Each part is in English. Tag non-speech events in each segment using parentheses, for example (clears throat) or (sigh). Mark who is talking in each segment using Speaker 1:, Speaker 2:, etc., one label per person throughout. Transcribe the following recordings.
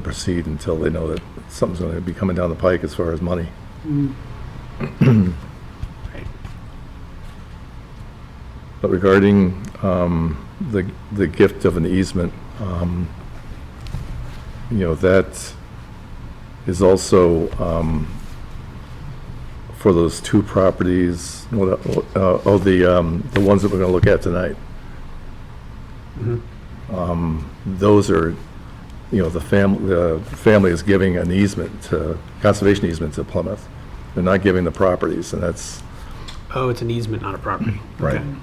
Speaker 1: proceed until they know that something's going to be coming down the pike as far as money. But regarding um, the the gift of an easement, um, you know, that is also um, for those two properties, what, uh, oh, the, um, the ones that we're going to look at tonight. Um, Those are, you know, the fam, the family is giving an easement to, conservation easement to Plymouth. They're not giving the properties, and that's,
Speaker 2: Oh, it's an easement, not a property.
Speaker 3: Mm,
Speaker 1: Right.
Speaker 2: Okay.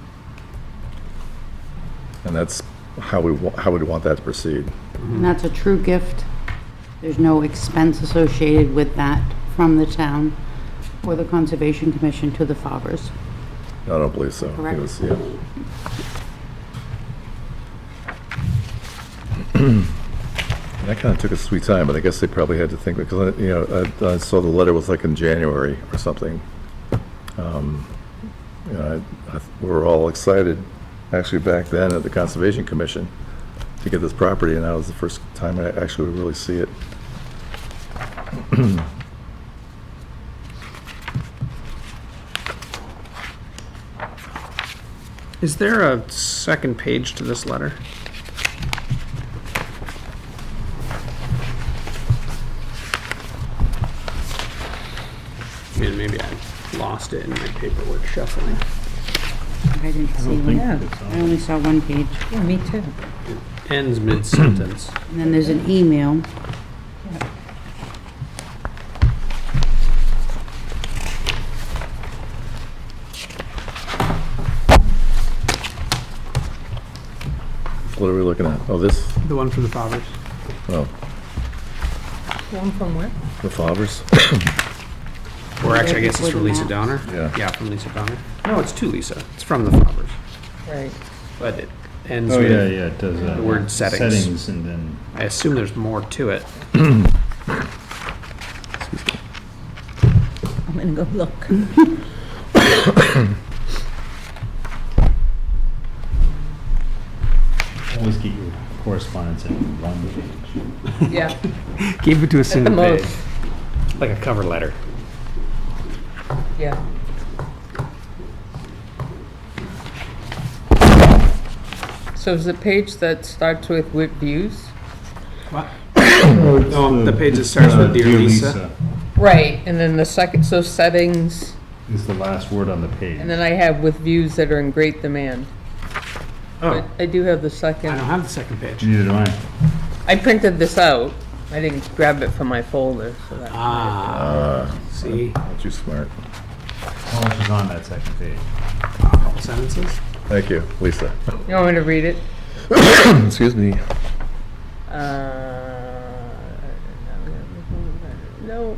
Speaker 1: and that's how we, wa- how we'd want that to proceed.
Speaker 4: And that's a true gift. There's no expense associated with that from the town or the Conservation Commission to the Fawbers.
Speaker 1: I don't believe so. I think it was- yeah. That kind of took a sweet time, but I guess they probably had to think, because, uh, you know, I, I saw the letter was like in January or something. Um, you know, I- I- We were all excited, actually back then at the Conservation Commission, to get this property, and that was the first time I actually really see it.
Speaker 2: Is there a second page to this letter? Man, maybe I lost it in my paperwork shuffling.
Speaker 4: I didn't see one. I only saw one page.
Speaker 5: Yeah, me too.
Speaker 2: Ends mid-sentence.
Speaker 4: And then there's an email.
Speaker 1: What are we looking at? Oh, this,
Speaker 2: (clears throat) The one from the Fobbers.
Speaker 1: oh,
Speaker 5: One from where?
Speaker 1: the Favres?
Speaker 2: Or actually, I guess it's from Lisa Donner?
Speaker 1: Yeah.
Speaker 2: Yeah, from Lisa Donner. No, it's to Lisa. It's from the Fobbers.
Speaker 5: (laughs) Right.
Speaker 2: But it ends
Speaker 3: Oh, yeah,
Speaker 2: with,
Speaker 3: yeah, it does.
Speaker 2: the word settings.
Speaker 3: Settings and then,
Speaker 2: I assume there's more to it.
Speaker 5: I'm gonna go look.
Speaker 3: always get your correspondence in one page.
Speaker 5: Yeah.
Speaker 2: Keep it to a single
Speaker 5: most.
Speaker 2: Like a cover letter.
Speaker 5: Yeah. So is the page that starts with with views?
Speaker 2: No, Oh, the page that starts with
Speaker 3: Oh, Uh,
Speaker 2: Dear Lisa.
Speaker 5: Right, and then the second, so settings,
Speaker 3: Is the last word on the page.
Speaker 5: and then I have with views that are in great demand. But
Speaker 2: Oh,
Speaker 5: I do have the
Speaker 2: I don't
Speaker 5: second.
Speaker 2: have the second page.
Speaker 3: Neither do I.
Speaker 5: I printed this out. I didn't grab it from my folder, so that.
Speaker 2: Ah,
Speaker 1: Uh,
Speaker 2: see,
Speaker 1: too smart.
Speaker 3: How much is on that second page?
Speaker 2: a couple sentences.
Speaker 1: Thank you, Lisa.
Speaker 5: You want me to read it?
Speaker 1: Excuse me.
Speaker 5: Uh, No,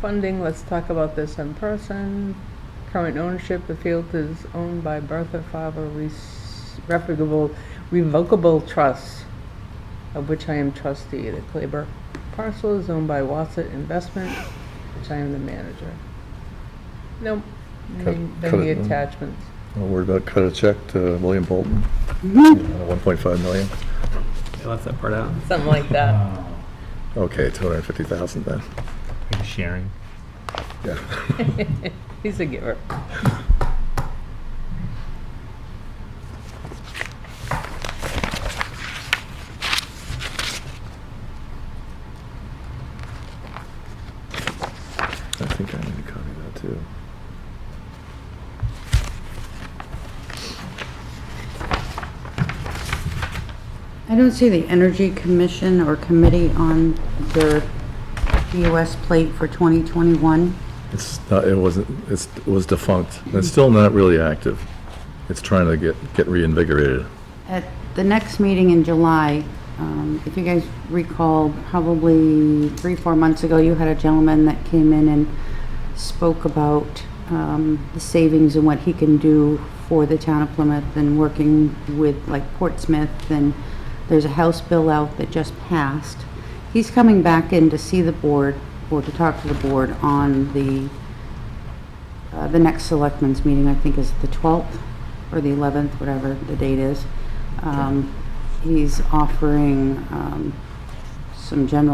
Speaker 5: funding, let's talk about this in person. Current ownership, the field is owned by Bertha Faber Res- Revocable, Revocable Trust, of which I am trustee. The Claver parcel is owned by Wassett Investment, which I am the manager. Nope,
Speaker 1: Cut-
Speaker 5: then
Speaker 1: cut
Speaker 5: the
Speaker 1: it, no.
Speaker 5: attachments.
Speaker 1: I'll worry about cut a check to William Bolton,
Speaker 4: Mm-hmm.
Speaker 1: Uh, 1.5 million.
Speaker 2: I left that part out.
Speaker 5: Something like that.
Speaker 3: Oh,
Speaker 1: Okay, 250,000 then.
Speaker 3: are you sharing?
Speaker 1: Yeah. (laughs)
Speaker 5: He's a giver.
Speaker 1: I think I need to copy that too.
Speaker 4: I don't see the Energy Commission or Committee on their US plate for 2021.
Speaker 1: It's not, it wasn't, it's, it was defunct. It's still not really active. It's trying to get, get reinvigorated.
Speaker 4: At the next meeting in July, um, if you guys recall, probably three, four months ago, you had a gentleman that came in and spoke about um, the savings and what he can do for the town of Plymouth and working with like Portsmouth. And there's a House bill out that just passed. He's coming back in to see the board or to talk to the board on the uh, the next selectmen's meeting, I think, is the 12th or the 11th, whatever the date is. Um, He's offering um, some general